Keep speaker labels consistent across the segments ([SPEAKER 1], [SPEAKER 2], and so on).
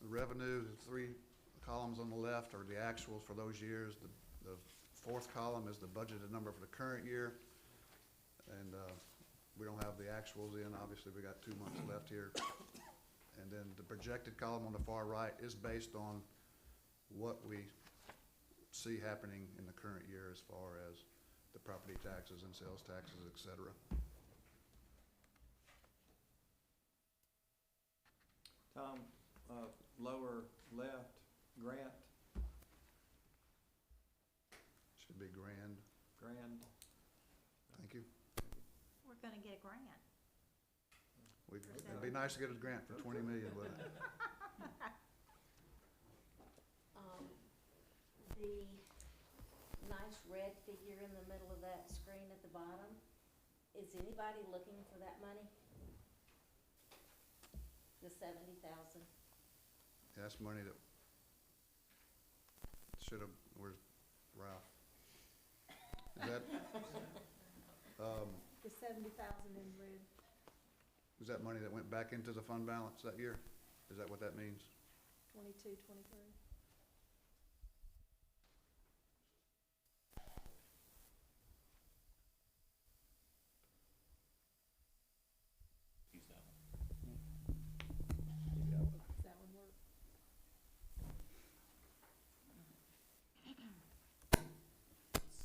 [SPEAKER 1] revenue, the three columns on the left are the actuals for those years. The, the fourth column is the budgeted number for the current year. And, uh, we don't have the actuals in, obviously, we got two months left here. And then the projected column on the far right is based on what we see happening in the current year as far as the property taxes and sales taxes, et cetera.
[SPEAKER 2] Tom, uh, lower left, grant,
[SPEAKER 1] Should be grand.
[SPEAKER 2] grand,
[SPEAKER 1] Thank you.
[SPEAKER 3] We're gonna get a grant.
[SPEAKER 1] We- It'd be nice to get a grant for twenty million, wouldn't it?
[SPEAKER 4] Um, the nice red figure in the middle of that screen at the bottom, is anybody looking for that money? The seventy thousand?
[SPEAKER 1] That's money that should have, where's Ralph? Is that, um,
[SPEAKER 5] The seventy thousand in red.
[SPEAKER 1] is that money that went back into the fund balance that year? Is that what that means?
[SPEAKER 5] Twenty-two, twenty-three. Does that one work?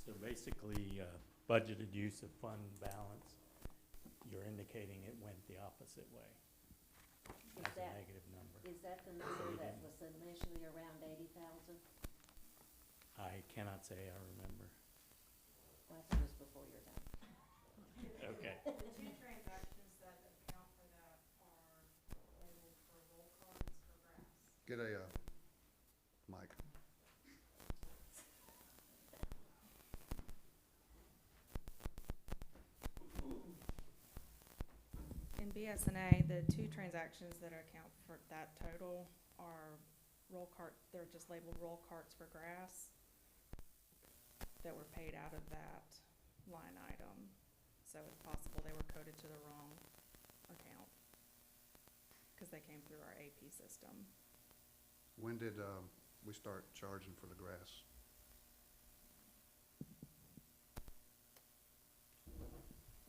[SPEAKER 6] So basically, uh, budgeted use of fund balance, you're indicating it went the opposite way.
[SPEAKER 4] Is
[SPEAKER 6] That's a
[SPEAKER 4] that,
[SPEAKER 6] negative number.
[SPEAKER 4] is that the number that
[SPEAKER 6] Eighty.
[SPEAKER 4] was initially around eighty thousand?
[SPEAKER 6] I cannot say I remember.
[SPEAKER 4] Well, I think it was before your time.
[SPEAKER 6] Okay.
[SPEAKER 7] The two transactions that account for that are labeled for roll cards for grass.
[SPEAKER 1] Get a, uh, mic.
[SPEAKER 8] In BSNA, the two transactions that account for that total are roll cart, they're just labeled roll carts for grass that were paid out of that line item. So it's possible they were coded to the wrong account because they came through our AP system.
[SPEAKER 1] When did, um, we start charging for the grass?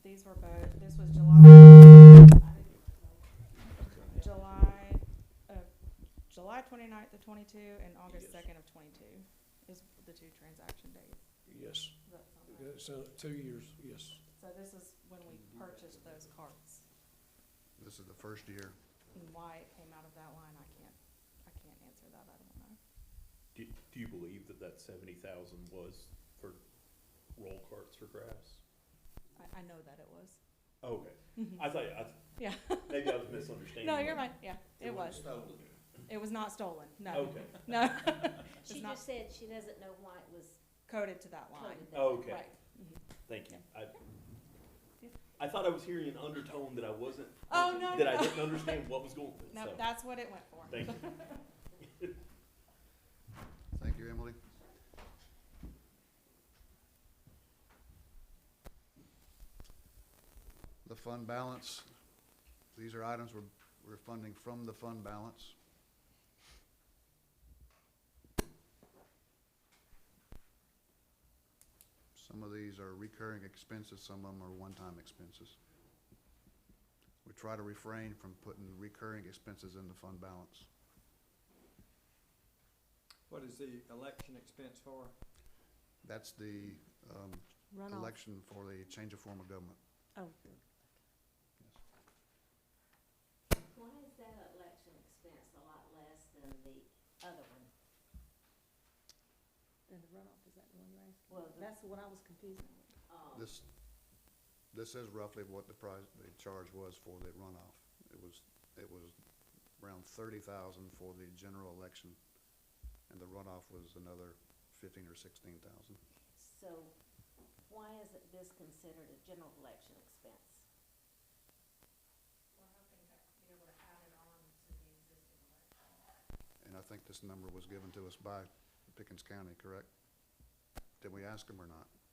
[SPEAKER 8] These were both, this was July. July of, July twenty-ninth of twenty-two and
[SPEAKER 9] Yes.
[SPEAKER 8] August second of twenty-two is the two transaction dates.
[SPEAKER 9] Yes,
[SPEAKER 8] Does that sound right?
[SPEAKER 9] Yeah, so two years, yes.
[SPEAKER 8] So this is when we purchased those carts
[SPEAKER 1] This is the first year.
[SPEAKER 8] and why it came out of that line, I can't, I can't answer that, I don't know.
[SPEAKER 10] Do, do you believe that that seventy thousand was for roll carts for grass?
[SPEAKER 8] I, I know that it was.
[SPEAKER 10] Okay, I thought, I,
[SPEAKER 8] Yeah,
[SPEAKER 10] maybe I was misunderstanding.
[SPEAKER 8] no, you're right, yeah, it was. It was not stolen, no,
[SPEAKER 10] Okay,
[SPEAKER 8] no,
[SPEAKER 4] She
[SPEAKER 8] not-
[SPEAKER 4] just said she doesn't know why it was
[SPEAKER 8] coded to that line,
[SPEAKER 4] coded that.
[SPEAKER 6] Oh.
[SPEAKER 10] okay,
[SPEAKER 8] right. Mm-hmm.
[SPEAKER 10] thank you. I, I thought I was hearing an undertone that I wasn't,
[SPEAKER 8] Oh, no,
[SPEAKER 10] that I
[SPEAKER 8] no.
[SPEAKER 10] didn't understand what was going,
[SPEAKER 8] No,
[SPEAKER 10] so,
[SPEAKER 8] that's what it went for.
[SPEAKER 10] thank you.
[SPEAKER 1] Thank you, Emily. The fund balance, these are items we're, we're funding from the fund balance. Some of these are recurring expenses, some of them are one-time expenses. We try to refrain from putting recurring expenses in the fund balance.
[SPEAKER 2] what is the election expense for?
[SPEAKER 1] That's the, um,
[SPEAKER 4] Runoff.
[SPEAKER 1] election for the change of form of government.
[SPEAKER 4] Oh. Why is that election expense a lot less than the other one?
[SPEAKER 5] Then the runoff, is that the one you're asking?
[SPEAKER 4] Well, the-
[SPEAKER 5] That's the one I was confused with.
[SPEAKER 4] Um,
[SPEAKER 1] This, this is roughly what the price, the charge was for the runoff. It was, it was around thirty thousand for the general election, and the runoff was another fifteen or sixteen thousand.
[SPEAKER 4] So why isn't this considered a general election expense?
[SPEAKER 7] We're hoping to be able to add it on to the existing election.
[SPEAKER 1] And I think this number was given to us by Pickens County, correct? Did we ask them or not?